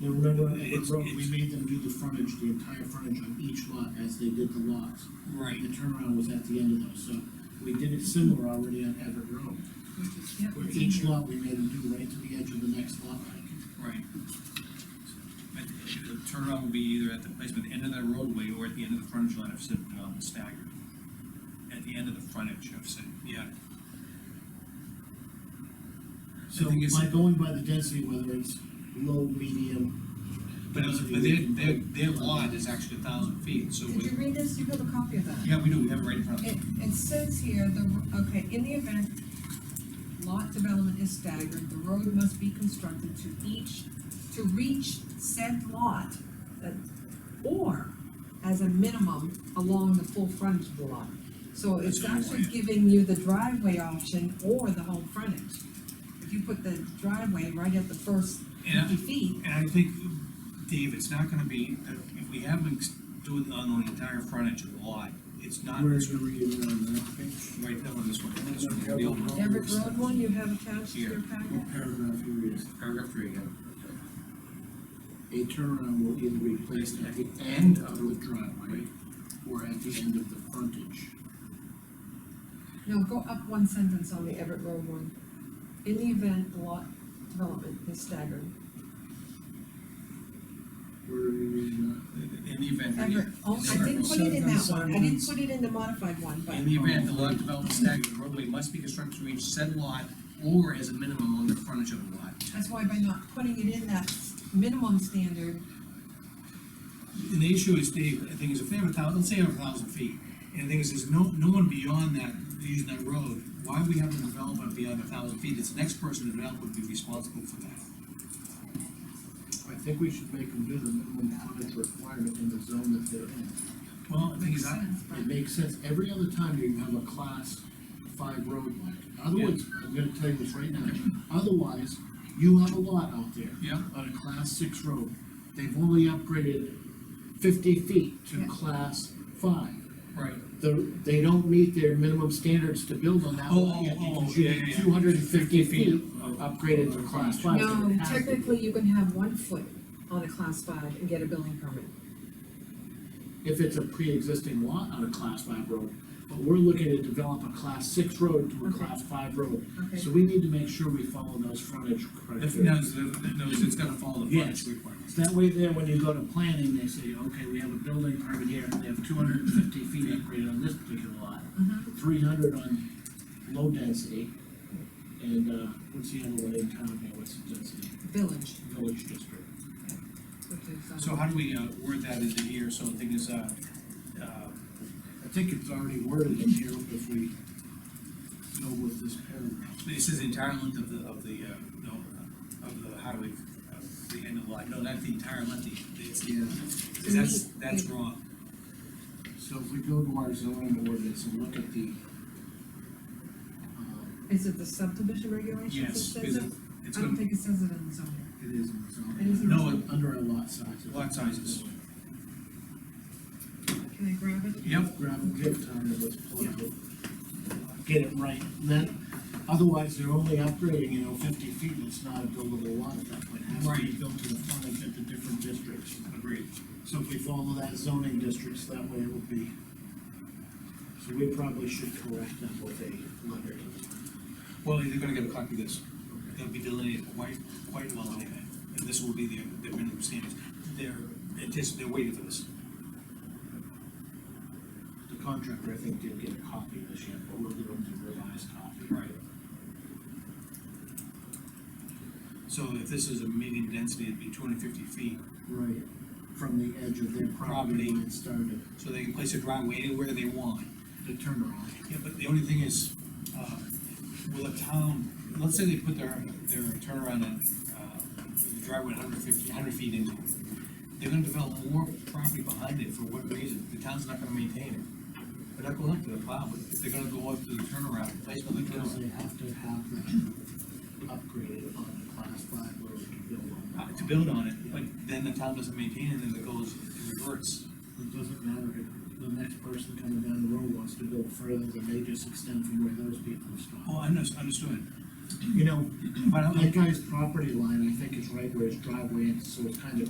You remember, it's, It's- we made them do the frontage, the entire frontage on each lot as they did the lots. Right. The turnaround was at the end of those, so we did it similar already on Everett Road. Where each lot, we made them do right to the edge of the next lot line. Right. But the turnaround will be either at the place at the end of the roadway or at the end of the frontage line of Citadel um, staggered. At the end of the frontage of Citadel, yeah. So thing is- by going by the density, whether it's low, medium. But, it's- but their, their, their lot is actually a thousand feet, so Did you we, read this? You have a copy of that? yeah, we do, we have it right in front of us. It, it says here, the, okay, in the event lot development is staggered, the road must be constructed to each, to reach said lot, that, or as a minimum along the full frontage of the lot. So it's That's what I actually wanted. giving you the driveway option or the whole frontage. If you put the driveway right at the first Yeah. fifty feet, And I think, Dave, it's not gonna be, if we have them do it on the entire frontage of the lot, it's not Where's the reading on that page? right there on this one, this one, the old one. Everett Road one you have attached to your Here. packet? What paragraph you read? Paragraph three again. A turnaround will either be placed at the end of the driveway or at the end of the frontage. No, go up one sentence on the Everett Road one. In the event the lot development is staggered. Where are you reading that? In the event. Everett, oh, I didn't put it in that one, I didn't Sentence. put it in the modified one, but, In the event the lot development staggered, the roadway must be constructed to reach said lot or as a minimum on the frontage of the lot. that's why by not putting it in that minimum standard, And the issue is, Dave, I think is if they have a thousand, let's say they have a thousand feet, and the thing is, there's no, no one beyond that using that road, why would we have a development beyond a thousand feet? It's the next person to develop would be responsible for that. I think we should make them do the minimum frontage requirement in the zone that they're in. Well, the thing makes is, I, sense, but. It makes sense, every other time you have a class five road like, otherwise, I'm gonna tell you this right now, otherwise, you have a lot out there. Yeah. On a class six road, they've only upgraded fifty feet to Yeah. class five. right, The, they don't meet their minimum standards to build on that Oh, lot yet, oh, oh, because yeah, yeah, yeah. two hundred and fifty 50 feet feet of- upgraded to class five. so it No, has to be. technically you can have one foot on a class five and get a building permit. if it's a pre-existing lot on a class five road. But we're looking to develop a class six road to a Okay. class five road. Okay. So we need to make sure we follow those frontage if, criteria. no, it's, no, it's- it's gonna follow the Yes. frontage requirements. That way there, when you go to planning, they say, okay, we have a building permit here, and they have two hundred and fifty feet upgraded on this particular lot. Mm-hmm. Three hundred on low density, and, uh, what's the other one in town here, what's the density, Village, village district? which is, um. So how do we, uh, word that into here, so the thing is, uh, uh, I think it's already worded in here if we go with this paragraph. This is the entire length of the, of the, uh, no, uh, of the highway, of the end of the line, no, not the entire length, the- it's the, because that's, that's wrong. So if we go to our zoning ordinance and look at the, um, Is it the subdivision regulations Yes, that says because it? it's I don't gonna, think it says it in the zoning. it is in the It is zoning. in the No, it- zoning. Under our lot sizes. lot sizes. Can I grab it? Yep, Grab and give time to this political. Get it right, And then, otherwise they're only upgrading, you know, fifty feet, it's not a buildable lot at that point. It has to be Right. built to the frontage at the different districts. agreed. So if we follow that zoning districts, that way it would be. So we probably should correct that with a letter. Well, they're gonna get a copy of this, they'll be delineated quite, quite well anyway, and this will be their, their minimum standards. They're, antici- they're waiting for this. The contractor, I think, did get a copy of this yet, but we'll give him the revised copy. Right. So if this is a median density, it'd be two hundred and fifty feet, Right, from the edge of their property Property. line started so they can place a driveway anywhere they want. the turnaround. Yeah, but the only thing is, uh, will a town, let's say they put their, their turnaround at, uh, the driveway 150 100 feet into it. They're gonna develop more property behind it, for what reason? The town's not gonna maintain it. They're not going up to the plow, but if they're gonna go up to the turnaround, place another Because turnaround. they have to have that upgraded on the class five road to build uh, on. To build on it, but then the town doesn't maintain it, and then it goes, it reverts. It doesn't matter if the next person coming down the road wants to build further, than they just extend from where those people Oh, stop. I under- understood. you know, But I'm, that guy's property line, I think is right where his driveway is, so it's kind of